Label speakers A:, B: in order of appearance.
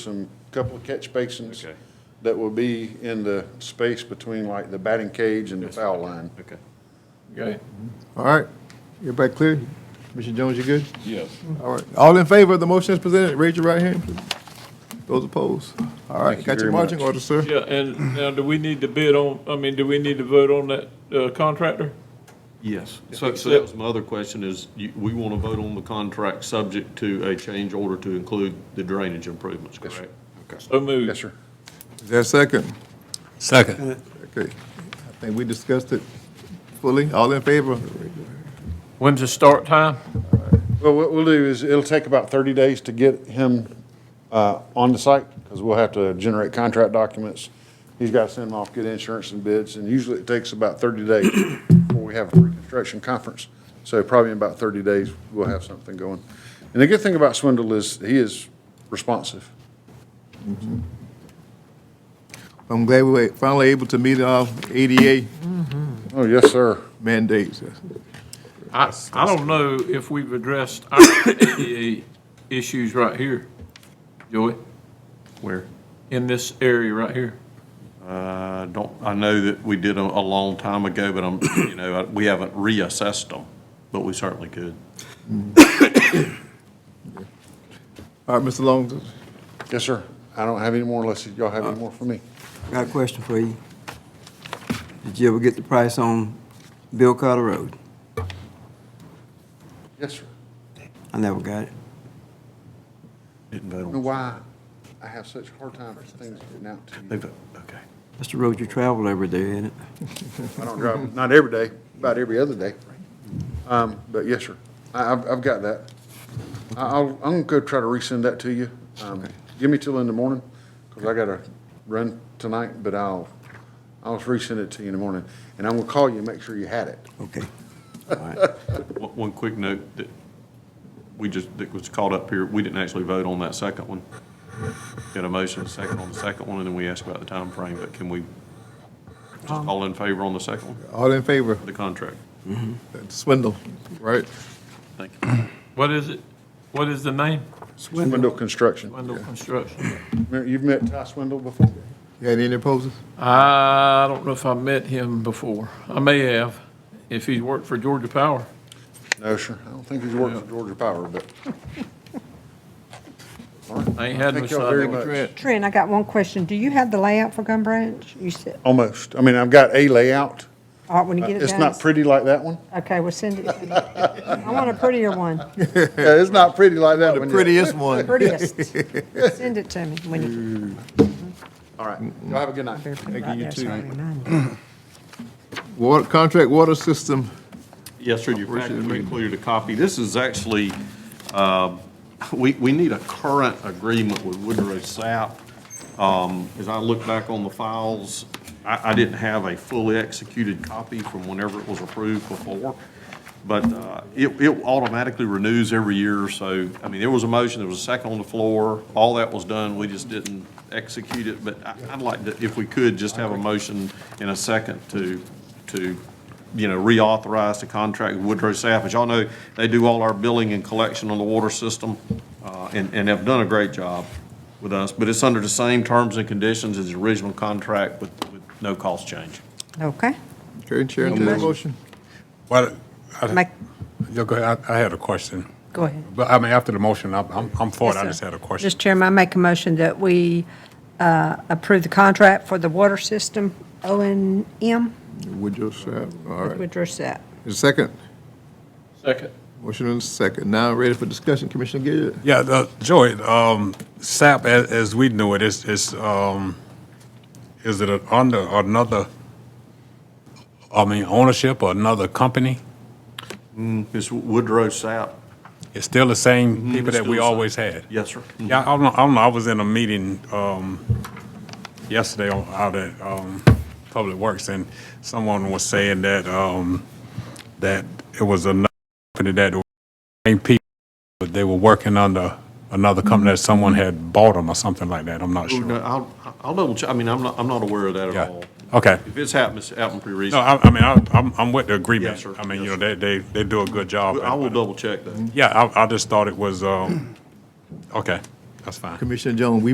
A: some, couple of catch basins
B: Okay.
A: that will be in the space between like the batting cage and the foul line.
B: Okay.
C: Okay. All right. Everybody clear? Commissioner Jones, you good?
B: Yes.
C: All right. All in favor of the motion as presented, raise your right hand. please. Those opposed? All
A: Thank you
C: right, got
A: very
C: your marching
A: much.
C: orders, sir?
D: Yeah, and now do we need to bid on, I mean, do we need to vote on that uh, contractor?
B: Yes. So, so that was my other question is, you, we want to vote on the contract subject to a change order to include the drainage improvements, correct?
D: So moved.
A: Yes, sir.
C: Is there a second?
E: Second.
C: Okay. I think we discussed it fully. All in favor?
D: When's the start time?
A: Well, what we'll do is, it'll take about thirty days to get him, uh, on the site, because we'll have to generate contract documents. He's got to send them off, get insurance and bids, and usually it takes about thirty days before we have a reconstruction conference. So probably in about thirty days, we'll have something going. And the good thing about Swindle is, he is responsive.
C: I'm glad we were finally able to meet our ADA
A: Oh, yes, sir.
C: mandates.
D: I, I don't know if we've addressed our ADA issues right here, Joey,
B: Where?
D: in this area right here.
B: Uh, don't, I know that we did a, a long time ago, but I'm, you know, I- we haven't reassessed them, but we certainly could.
C: All right, Mr. Long,
A: Yes, sir. I don't have any more unless y'all have any more for me.
F: Got a question for you. Did you ever get the price on Bill Carter Road?
A: Yes, sir.
F: I never got it.
B: Didn't vote
A: Know why I have such a hard time for things getting out to
B: They
A: you.
B: vote, okay.
F: That's the road you travel every day, ain't it?
A: I don't drive, not every day, about every other day. Um, but yes, sir. I, I've, I've got that. I- I'll, I'm gonna go try to resend that to you. Um, give me till in the morning, cause I gotta run tonight, but I'll, I'll resend it to you in the morning. And I'm gonna call you and make sure you had it.
F: Okay.
B: One, one quick note that we just, that was caught up here, we didn't actually vote on that second one. Got a motion, a second on the second one, and then we asked about the time frame. but can we, just all in favor on the second one,
C: all in favor?
B: the contract?
C: Swindle, right?
B: Thank you.
D: What is it? What is the name?
A: Swindle Construction.
D: Wendell Construction.
A: You've met Ty Swindle before?
C: You had any opposers?
D: I don't know if I met him before. I may have, if he's worked for Georgia Power.
A: No, sir. I don't think he's worked for Georgia Power, but. All right.
D: I ain't had
A: Thank
D: no
A: y'all very
D: side.
A: much.
G: Trent, I got one question. Do you have the layout for Gun Branch? You said,
A: Almost. I mean, I've got a layout.
G: all right, when
E: Uh,
G: you get it done.
A: It's not pretty like that one.
G: Okay, well, send it to me. I want a prettier one,
A: Yeah, it's not pretty like that one. yet.
C: Prettiest one.
G: prettiest. Send it to me when you.
A: All right. Y'all have a good night.
C: you, you too.
G: too.
C: Water, contract water system.
B: Yes, sir, your packet, we included a copy. This is actually, uh, we, we need a current agreement with Woodrow Sapp. Um, As I look back on the files, I, I didn't have a fully executed copy from whenever it was approved before, but uh, it, it automatically renews every year, so, I mean, there was a motion, there was a second on the floor, all that was done, we just didn't execute it, but I- I'd like to, if we could, just have a motion in a second to, to you know, reauthorize the contract with Woodrow Sapp. As y'all know, they do all our billing and collection on the water system, uh, and, and have done a great job with us, but it's under the same terms and conditions as the original contract with, with no cost change.
G: Okay.
C: Okay, Chair, entertain a motion.
E: Well, I,
G: Make,
E: yo, go ahead. I, I had a question.
G: go ahead.
E: But I mean, after the motion, I'm, I'm- I'm for it.
G: Yes,
E: I
G: sir.
E: just had a question.
G: Mr. Chairman, I make a motion that we uh, approve the contract for the water system, O and M,
C: Woodrow Sapp, all right.
G: Woodrow Sapp.
C: Is second?
D: Second.
C: Motion and second. Now ready for discussion, Commissioner Gill.
E: Yeah, the, Joey, um, SAP, as, as we knew it, is, is, um, is it a- under another, I mean, ownership or another company?
B: Ms. Woodrow Sapp?
E: It's still the same people
B: Mm-hmm. it's
E: that we
B: still the same.
E: always had?
B: Yes, sir.
E: Yeah, I don't know, I don't know, I was in a meeting, um, yesterday on- out at, um, Public Works, and someone was saying that, um, that it was another company that, the same people, but they were working under another company that someone had bought them or something like that, I'm not
B: No,
E: sure.
B: I'll, I'll double check, I mean, I'm not, I'm not aware of that
E: Yeah.
B: at all.
E: Okay.
B: If it's happened, it's happened pretty
E: No,
B: recently.
E: I, I mean, I, I'm, I'm with the agreement.
B: Yes, sir.
E: I mean, you know,
B: Yes,
E: they, they, they do a good job.
B: I will double check that.
E: Yeah, I, I just thought it was, um, okay, that's fine.
C: Commissioner Jones, we